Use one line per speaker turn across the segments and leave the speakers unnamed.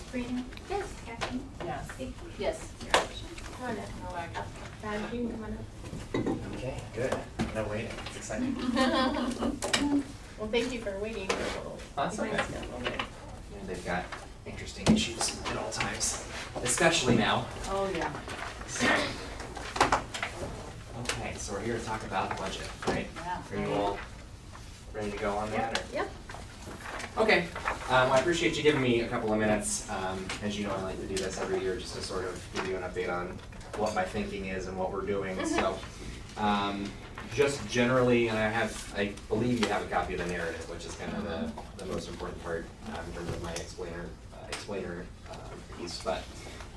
Sabrina? Yes. Kathleen?
Yes.
Vicky?
Yes.
Come on up. Dad, you can come on up.
Okay, good. No waiting. It's exciting.
Well, thank you for waiting for a little.
That's okay.
Mine's got a little bit.
You know, They've got interesting issues at all times, especially now.
Oh, yeah.
So- Okay, so we're here to talk about budget, right?
Yeah.
Are you all ready to go on that or?
Yep.
Okay, um, I appreciate you giving me a couple of minutes. Um, as you know, I like to do this every year just to sort of give you an update on what my thinking is and what we're doing, so. Um, just generally, and I have, I believe you have a copy of the narrative, which is kind of the, the most important part, um, in terms of my explainer, uh, explainer, uh, piece, but,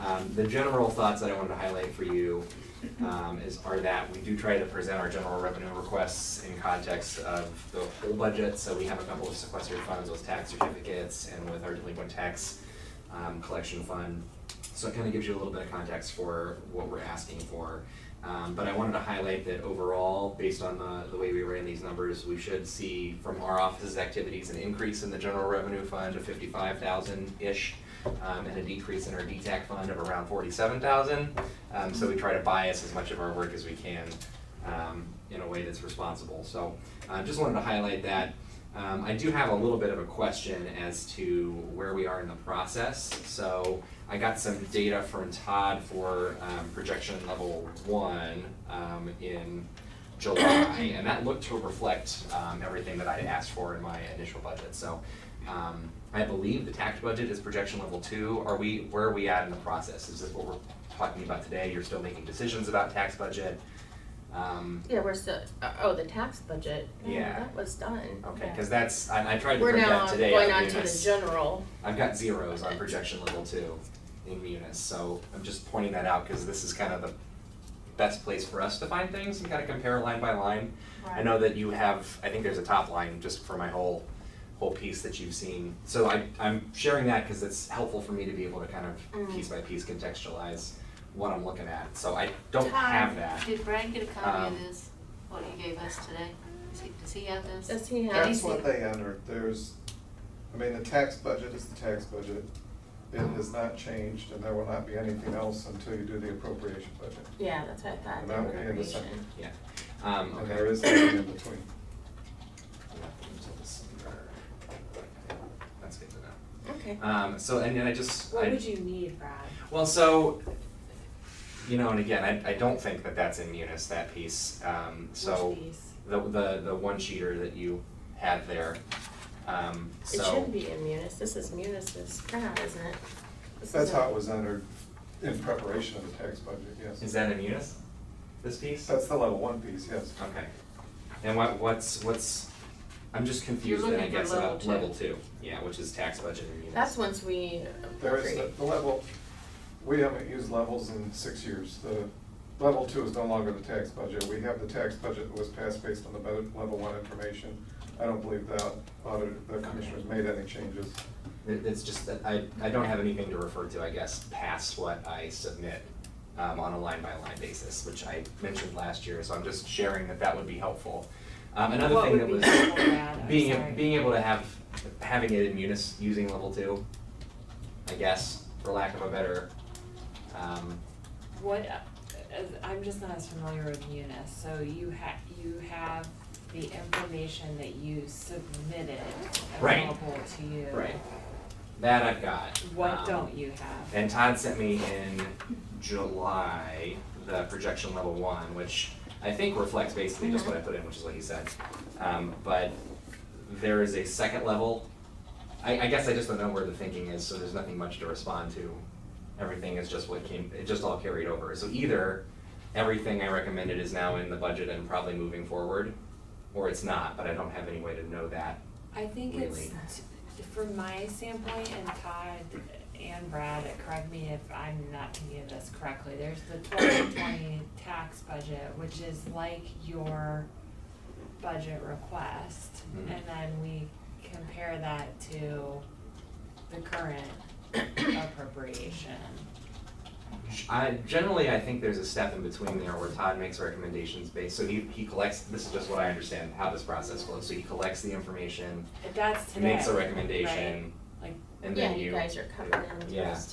um, the general thoughts that I wanted to highlight for you, um, is, are that we do try to present our general revenue requests in context of the whole budget, so we have a couple of sequestered funds with tax certificates and with our delinquent tax, um, collection fund. So it kind of gives you a little bit of context for what we're asking for. Um, but I wanted to highlight that overall, based on the, the way we ran these numbers, we should see from our office's activities an increase in the general revenue fund of fifty-five thousand-ish, um, and a decrease in our DTAC fund of around forty-seven thousand. Um, so we try to bias as much of our work as we can, um, in a way that's responsible. So, uh, just wanted to highlight that. Um, I do have a little bit of a question as to where we are in the process. So I got some data from Todd for um, projection level one um, in July, and that looked to reflect um, everything that I asked for in my initial budget. So um, I believe the tax budget is projection level two. Are we where are we at in the process? Is this what we're talking about today? You're still making decisions about tax budget. Um,
Yeah, we're still, uh, oh, the tax budget. No,
Yeah.
That was done.
okay, because that's I, I tried to
We're
print
now
that today.
going
out of
on to the
Munis.
general.
I've got zeros on projection level two in Munis, so I'm just pointing that out because this is kind of the best place for us to find things and kind of compare line by line. I know that you have, I think there's a top line just for my whole, whole piece that you've seen. So I, I'm sharing that because it's helpful for me to be able to kind of piece by piece contextualize what I'm looking at. So I don't have that.
Did Brian get a copy
Um,
of this, what you gave us today? Does he, does he have this?
Does he have?
Did he
That's
see-
what they entered, there's, I mean, the tax budget is the tax budget. It has not changed, and there will not be anything else until you do the appropriation budget.
Yeah, that's what I thought.
And that will be in the
appropriation.
second.
Yeah. Um,
And
okay.
there is nothing in between.
That's good to know.
Okay.
Um, so, and then I just. I-
What would you need, Brad?
Well, so, you know, and again, I, I don't think that that's in Munis, that piece, um, so.
Which piece?
The, the, the one cheater that you had there, um, so.
It shouldn't be in Munis. This is Munis's crap, isn't it? This
That's
is
how
a-
it was entered in preparation of the tax budget,
Is
yes.
that in Munis, this piece?
That's the level one piece, yes.
Okay, and what, what's, what's, I'm just confused then, I
looking for
guess, about
level two.
level two, yeah, which is tax budget in Munis.
That's once we
There is the,
appropriate.
the level, we haven't used levels in six years. The level two is no longer the tax budget. We have the tax budget that was passed based on the bu- level one information. I don't believe that auditor, the commissioners made any changes.
It- It's just that I, I don't have anything to refer to, I guess, past what I submit um, on a line-by-line basis, which I mentioned last year, so I'm just sharing that that would be helpful. Um, Another thing that was
What would be helpful, Brad? I'm
being,
sorry.
being able to have, having it in munis, using level two, I guess, for lack of a better, um,
What, uh, uh, I'm just not as familiar with Munis, so you ha- you have the information that you submitted
Right.
available to you.
right, that I've got.
What
Um,
don't you have?
And Todd sent me in July the projection level one, which I think reflects basically just what I put in, which is what he said. Um, but there is a second level. I, I guess I just don't know where the thinking is, so there's nothing much to respond to. Everything is just what came, it just all carried over. So either everything I recommended is now in the budget and probably moving forward, or it's not, but I don't have any way to know that.
I think it's,
Really?
t- from my standpoint, and Todd and Brad, correct me if I'm not thinking of this correctly, there's the twenty twenty tax budget, which is like your budget request,
Mhm.
and then we compare that to the current appropriation.
I, generally, I think there's a step in between there where Todd makes recommendations based, so he, he collects, this is just what I understand, how this process flows, so he collects the information,
That's today,
makes a recommendation,
right? Like
and
Yeah,
then
you guys are coming in.
Yeah.
first.